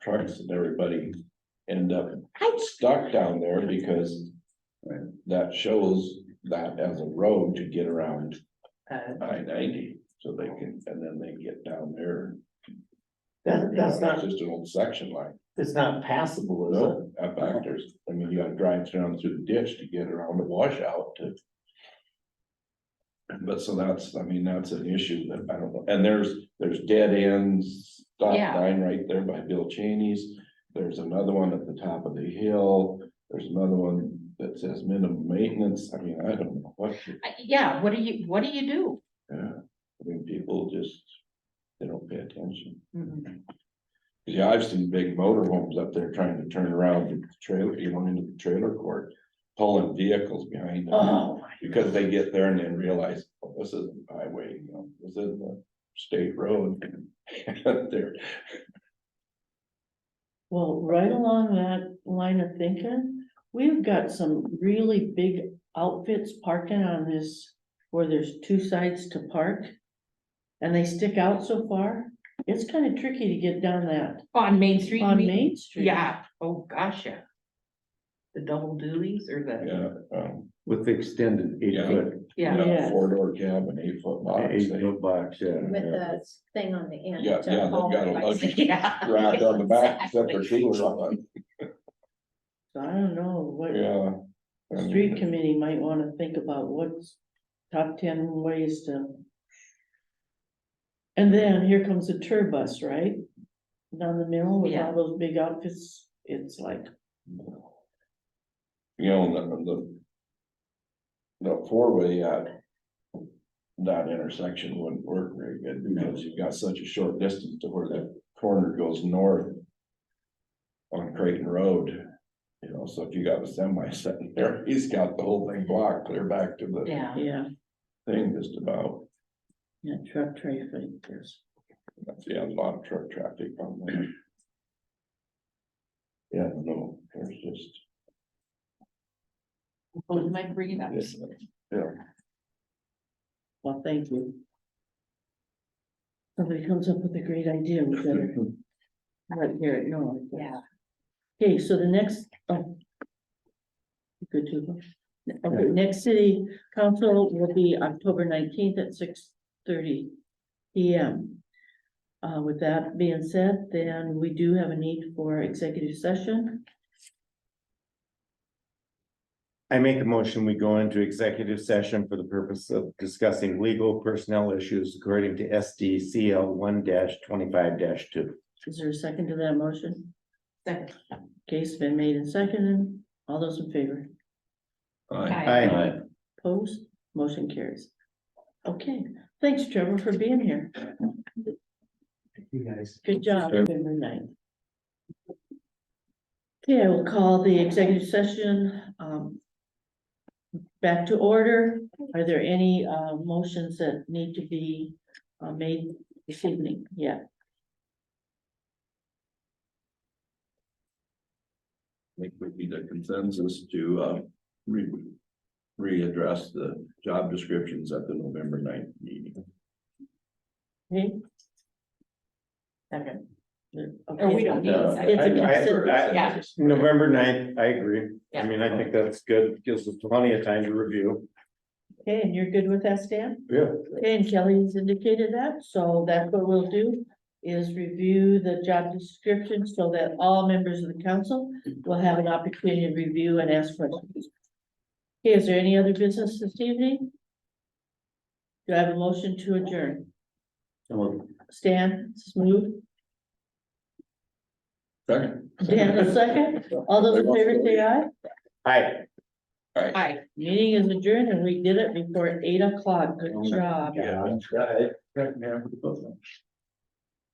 trucks and everybody end up stuck down there because Right. that shows that as a road to get around Uh, I ninety, so they can, and then they get down there. That, that's You know, not, it's Just an old section line, it's not passable, is it? no, up back there's, I mean, you gotta drive down through the ditch to get around the washout to. But so that's, I mean, that's an issue that I don't know, and there's, there's dead ends, stop Yeah. sign right there by Bill Cheney's. There's another one at the top of the hill, there's another one that says minimum maintenance, I mean, I don't know what. to- I- Uh, Yeah, what do you, what do you do? Yeah, I mean, people just, they don't pay attention. Mhm. Yeah, I've seen big motorhomes up there trying to turn around the trailer, you know, into the trailer court, pulling vehicles behind them. Oh, my Because they get there and then realize, oh, this isn't the highway, you know, this isn't a state road. There, Well, right along that line of thinking, we've got some really big outfits parking on this, where there's two sides to park. And they stick out so far, it's kind of tricky to get down that Oh, On Main Street? you on mean? Main Street. Yeah, oh, gosh, yeah. The double duties or the, yeah, um, With the extended eight Yeah. foot, you yeah, got a Yes. four door cab and eight foot box. eight they foot box, yeah. With Yeah. the thing on the end. Yeah, to yeah, they've hold got a it. luggage yeah. Dragged on the back, except for Exactly. two of them, So I don't know what yeah. the I street mean, committee might wanna think about what's top ten ways to. And then here comes the tour bus, right? Down the middle with Yeah. all those big outfits, it's like. You know, the, the. The four-way at. That intersection wouldn't work very good because you've got such a short distance to where that corner goes north. On Creighton Road, you know, so if you got a semi sitting there, he's got the whole thing blocked, clear back to the Yeah, Yeah, thing just about. yeah, truck traffic, yes. That's, yeah, a lot of truck traffic on there. Yeah, no, there's just. well, you might bring it up. Yes. Yeah. Well, thank you. Somebody comes up with a great idea, we better let hear it known. Yeah, Okay, so the next, oh. Good to go. Okay, next city council will be October nineteenth at six thirty P M. Uh, with that being said, then we do have a need for executive session. I make a motion, we go into executive session for the purpose of discussing legal personnel issues according to S D C L one twenty-five two. Is there a second to that motion? Second. Case been made and seconded. All those in favor? Aye. Aye. Opposed? Motion carries. Okay, thanks Trevor for being here. You guys. Good job, November ninth. Okay, I will call the executive session, um. Back to order. Are there any, uh, motions that need to be, uh, made this evening? Yeah. I think we need a consensus to, uh, re. Readdress the job descriptions at the November 9th meeting. Okay. Okay. Okay. Or we don't need a It's a second. consider- I- Yeah. November 9th. I agree. I Yeah. mean, I think that's good. Gives us plenty of time to review. Okay, and you're good with that, Stan? Yeah. Okay, and Kelly's indicated that, so that's what we'll do. Is review the job description so that all members of the council will have an opportunity to review and ask questions. Okay, is there any other business this evening? Do I have a motion to adjourn? Stan, smooth, Second. Dan, a second, all those in favor say aye. Aye. Aye. Meeting is adjourned and we did it before eight o'clock, good job. Yeah.